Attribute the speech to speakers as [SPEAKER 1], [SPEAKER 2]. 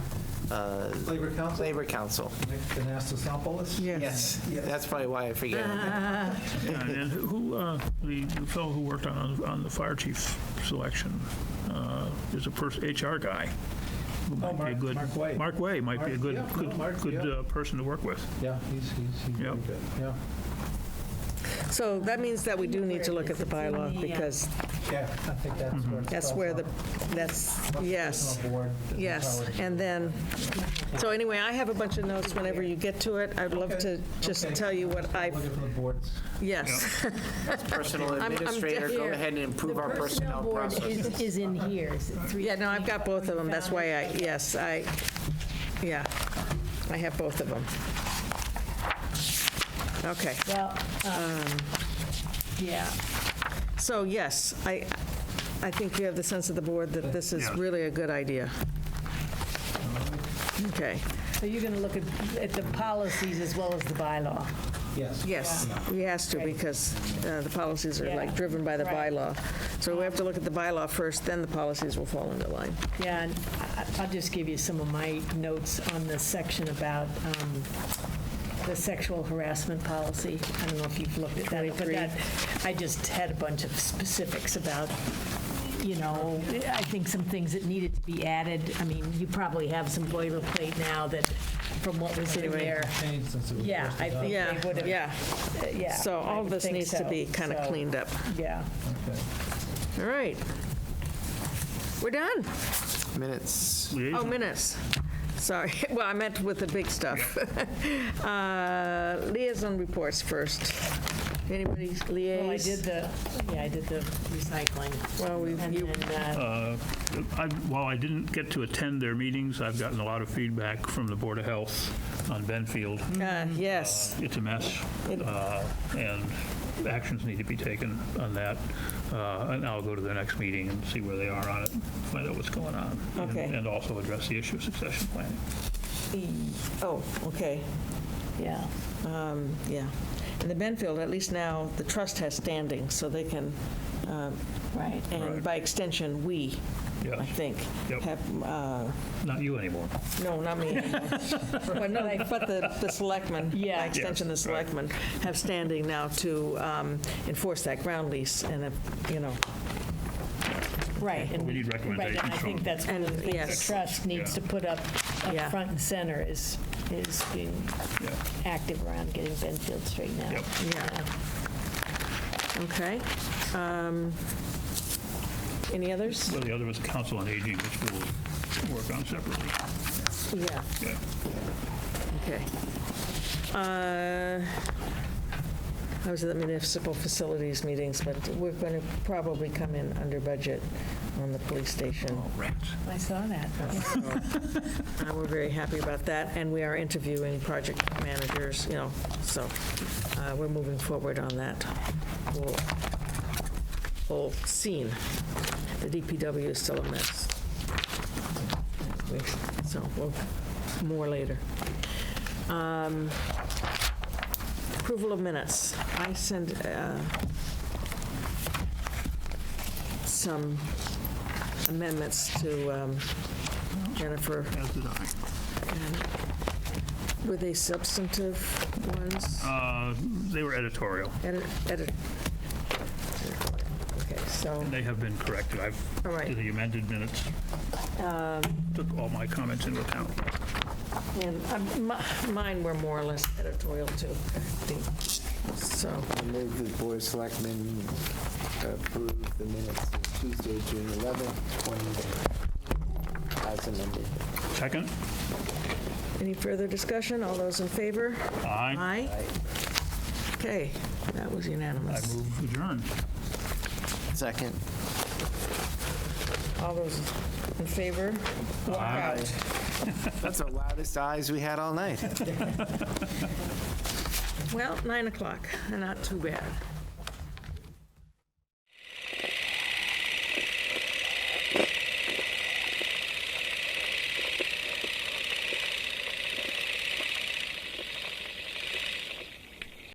[SPEAKER 1] uh,
[SPEAKER 2] Labor Council?
[SPEAKER 1] Labor Council.
[SPEAKER 2] Anastasopoulos?
[SPEAKER 1] Yes,
[SPEAKER 2] Yeah.
[SPEAKER 1] that's probably why I forget.
[SPEAKER 3] Yeah, And then who, uh, the the fellow who worked on, on the fire chief selection uh, is a person, HR guy. who might be a
[SPEAKER 2] Oh, Mark-
[SPEAKER 3] good-
[SPEAKER 2] Mark Way.
[SPEAKER 3] Mark Way might be a
[SPEAKER 2] Mark-
[SPEAKER 3] good,
[SPEAKER 2] yeah, no,
[SPEAKER 3] good,
[SPEAKER 2] Mark,
[SPEAKER 3] good
[SPEAKER 2] yeah.
[SPEAKER 3] uh, person to work with.
[SPEAKER 2] Yeah, he's, he's, he's very
[SPEAKER 3] Yep.
[SPEAKER 2] good, yeah.
[SPEAKER 4] So that means that we do need to look at the bylaw, because
[SPEAKER 2] Yeah, I think that's where. it
[SPEAKER 4] that's
[SPEAKER 2] starts
[SPEAKER 4] where the,
[SPEAKER 2] off.
[SPEAKER 4] that's,
[SPEAKER 2] Much
[SPEAKER 4] yes,
[SPEAKER 2] personal board than
[SPEAKER 4] yes.
[SPEAKER 2] powers.
[SPEAKER 4] And then, so anyway, I have a bunch of notes whenever you get to it. I'd love to
[SPEAKER 2] Okay,
[SPEAKER 4] just
[SPEAKER 2] okay.
[SPEAKER 4] tell you what I,
[SPEAKER 2] Looking for the boards.
[SPEAKER 4] yes,
[SPEAKER 1] Personal
[SPEAKER 4] I'm
[SPEAKER 1] administrator, go
[SPEAKER 5] deaf.
[SPEAKER 1] ahead and improve our personnel
[SPEAKER 5] The
[SPEAKER 1] process.
[SPEAKER 5] personnel board is- is in here. Is it three-
[SPEAKER 4] yeah, no, I've got both of them, that's why I, yes, I, yeah, I have both of them. Okay.
[SPEAKER 5] Well, um, yeah,
[SPEAKER 4] So yes, I, I think you have the sense of the board that this is
[SPEAKER 3] Yeah.
[SPEAKER 4] really a good idea. Okay,
[SPEAKER 5] so you're going to look at, at the policies as well as the bylaw.
[SPEAKER 2] Yes.
[SPEAKER 4] yes, he has to because uh, the policies are like
[SPEAKER 5] Yeah.
[SPEAKER 4] driven by the
[SPEAKER 5] Right.
[SPEAKER 4] bylaw. So we have to look at the bylaw first, then the policies will fall into line.
[SPEAKER 5] Yeah, and I- I'll just give you some of my notes on the section about um, the sexual harassment policy. I don't know if you've looked at that, but
[SPEAKER 4] 23.
[SPEAKER 5] that, I just had a bunch of specifics about, you know, I think some things that needed to be added. I mean, you probably have some boilerplate now that, from what was in there.
[SPEAKER 2] Changed since it was
[SPEAKER 5] Yeah,
[SPEAKER 2] first
[SPEAKER 5] I
[SPEAKER 2] adopted.
[SPEAKER 5] think
[SPEAKER 4] Yeah,
[SPEAKER 5] they would have,
[SPEAKER 4] yeah,
[SPEAKER 5] yeah.
[SPEAKER 4] so
[SPEAKER 5] I
[SPEAKER 4] all
[SPEAKER 5] would
[SPEAKER 4] this
[SPEAKER 5] think
[SPEAKER 4] needs to
[SPEAKER 5] so.
[SPEAKER 4] be kind of
[SPEAKER 5] So,
[SPEAKER 4] cleaned up.
[SPEAKER 5] Yeah.
[SPEAKER 2] Okay.
[SPEAKER 4] All right. We're done.
[SPEAKER 1] Minutes.
[SPEAKER 4] Oh,
[SPEAKER 3] Liaison.
[SPEAKER 4] minutes. Sorry. Well, I meant with the big stuff. Uh, Liaison reports first. Anybody liaise?
[SPEAKER 5] Well, Oh, I did the, yeah, I did the recycling.
[SPEAKER 4] Well, we-
[SPEAKER 5] And
[SPEAKER 4] you-
[SPEAKER 5] then, uh,
[SPEAKER 3] I- While I didn't get to attend their meetings, I've gotten a lot of feedback from the Board of Health on Benfield.
[SPEAKER 4] Uh, Yes.
[SPEAKER 3] It's a mess, uh, and actions need to be taken on that. Uh, And I'll go to the next meeting and see where they are on it, find out what's going on. and-
[SPEAKER 4] Okay.
[SPEAKER 3] And also address the issue of succession planning.
[SPEAKER 4] Oh, okay. Oh.
[SPEAKER 5] yeah.
[SPEAKER 4] Um, Yeah. And the Benfield, at least now, the trust has standing, so they can, um,
[SPEAKER 5] Right.
[SPEAKER 4] and
[SPEAKER 3] Right.
[SPEAKER 4] by extension, we, I
[SPEAKER 3] Yes.
[SPEAKER 4] think,
[SPEAKER 3] Yep.
[SPEAKER 4] have, uh,
[SPEAKER 3] Not you anymore.
[SPEAKER 4] no, not me. But no, but the the selectmen, by
[SPEAKER 5] Yeah.
[SPEAKER 4] extension, the
[SPEAKER 3] Yes,
[SPEAKER 4] selectmen, have standing now to um, enforce that ground lease and, if, you know,
[SPEAKER 5] Right. and-
[SPEAKER 3] We need
[SPEAKER 5] right, And I
[SPEAKER 3] recommendations from-
[SPEAKER 5] think that's one of the
[SPEAKER 4] And,
[SPEAKER 5] things
[SPEAKER 4] yes.
[SPEAKER 5] the trust needs to put up,
[SPEAKER 4] Yeah.
[SPEAKER 5] up front and center is, is being
[SPEAKER 3] Yeah.
[SPEAKER 5] active around getting Benfield straightened out.
[SPEAKER 3] Yep.
[SPEAKER 4] yeah. Okay. Um, Any others?
[SPEAKER 3] Well, the other was Council on Aging, which we'll work on separately.
[SPEAKER 4] Yeah.
[SPEAKER 3] Yeah.
[SPEAKER 4] Okay. Uh, I was at the municipal facilities meetings, but we're going to probably come in under budget on the police station.
[SPEAKER 3] Oh, rats.
[SPEAKER 5] I saw that.
[SPEAKER 4] Uh, We're very happy about that, and we are interviewing project managers, you know, so uh, we're moving forward on that whole- whole scene. The DPW is still a mess. So, we'll more later. Um, Approval of minutes. I send uh, some amendments to um, Jennifer.
[SPEAKER 3] As did I.
[SPEAKER 4] Were they substantive ones?
[SPEAKER 3] Uh, They were editorial.
[SPEAKER 4] Edit, edit. Okay, so,
[SPEAKER 3] They have been corrected. I've,
[SPEAKER 4] All right.
[SPEAKER 3] the amended minutes
[SPEAKER 4] Um.
[SPEAKER 3] took all my comments into account.
[SPEAKER 4] and um, mi- mine were more or less editorial too, I think. So,
[SPEAKER 6] I move the Board of Selectmen approve the minutes of Tuesday, June 11th, 2020, as amended.
[SPEAKER 3] Second?
[SPEAKER 4] any further discussion? All those in favor?
[SPEAKER 3] Aye.
[SPEAKER 4] Aye? Okay, that was
[SPEAKER 3] I
[SPEAKER 4] unanimous.
[SPEAKER 3] move adjourned.
[SPEAKER 1] Second.
[SPEAKER 4] All those in favor? Walk
[SPEAKER 3] Aye.
[SPEAKER 4] out.
[SPEAKER 1] That's the loudest eyes we had all night.
[SPEAKER 4] Well, 9 o'clock, not too bad.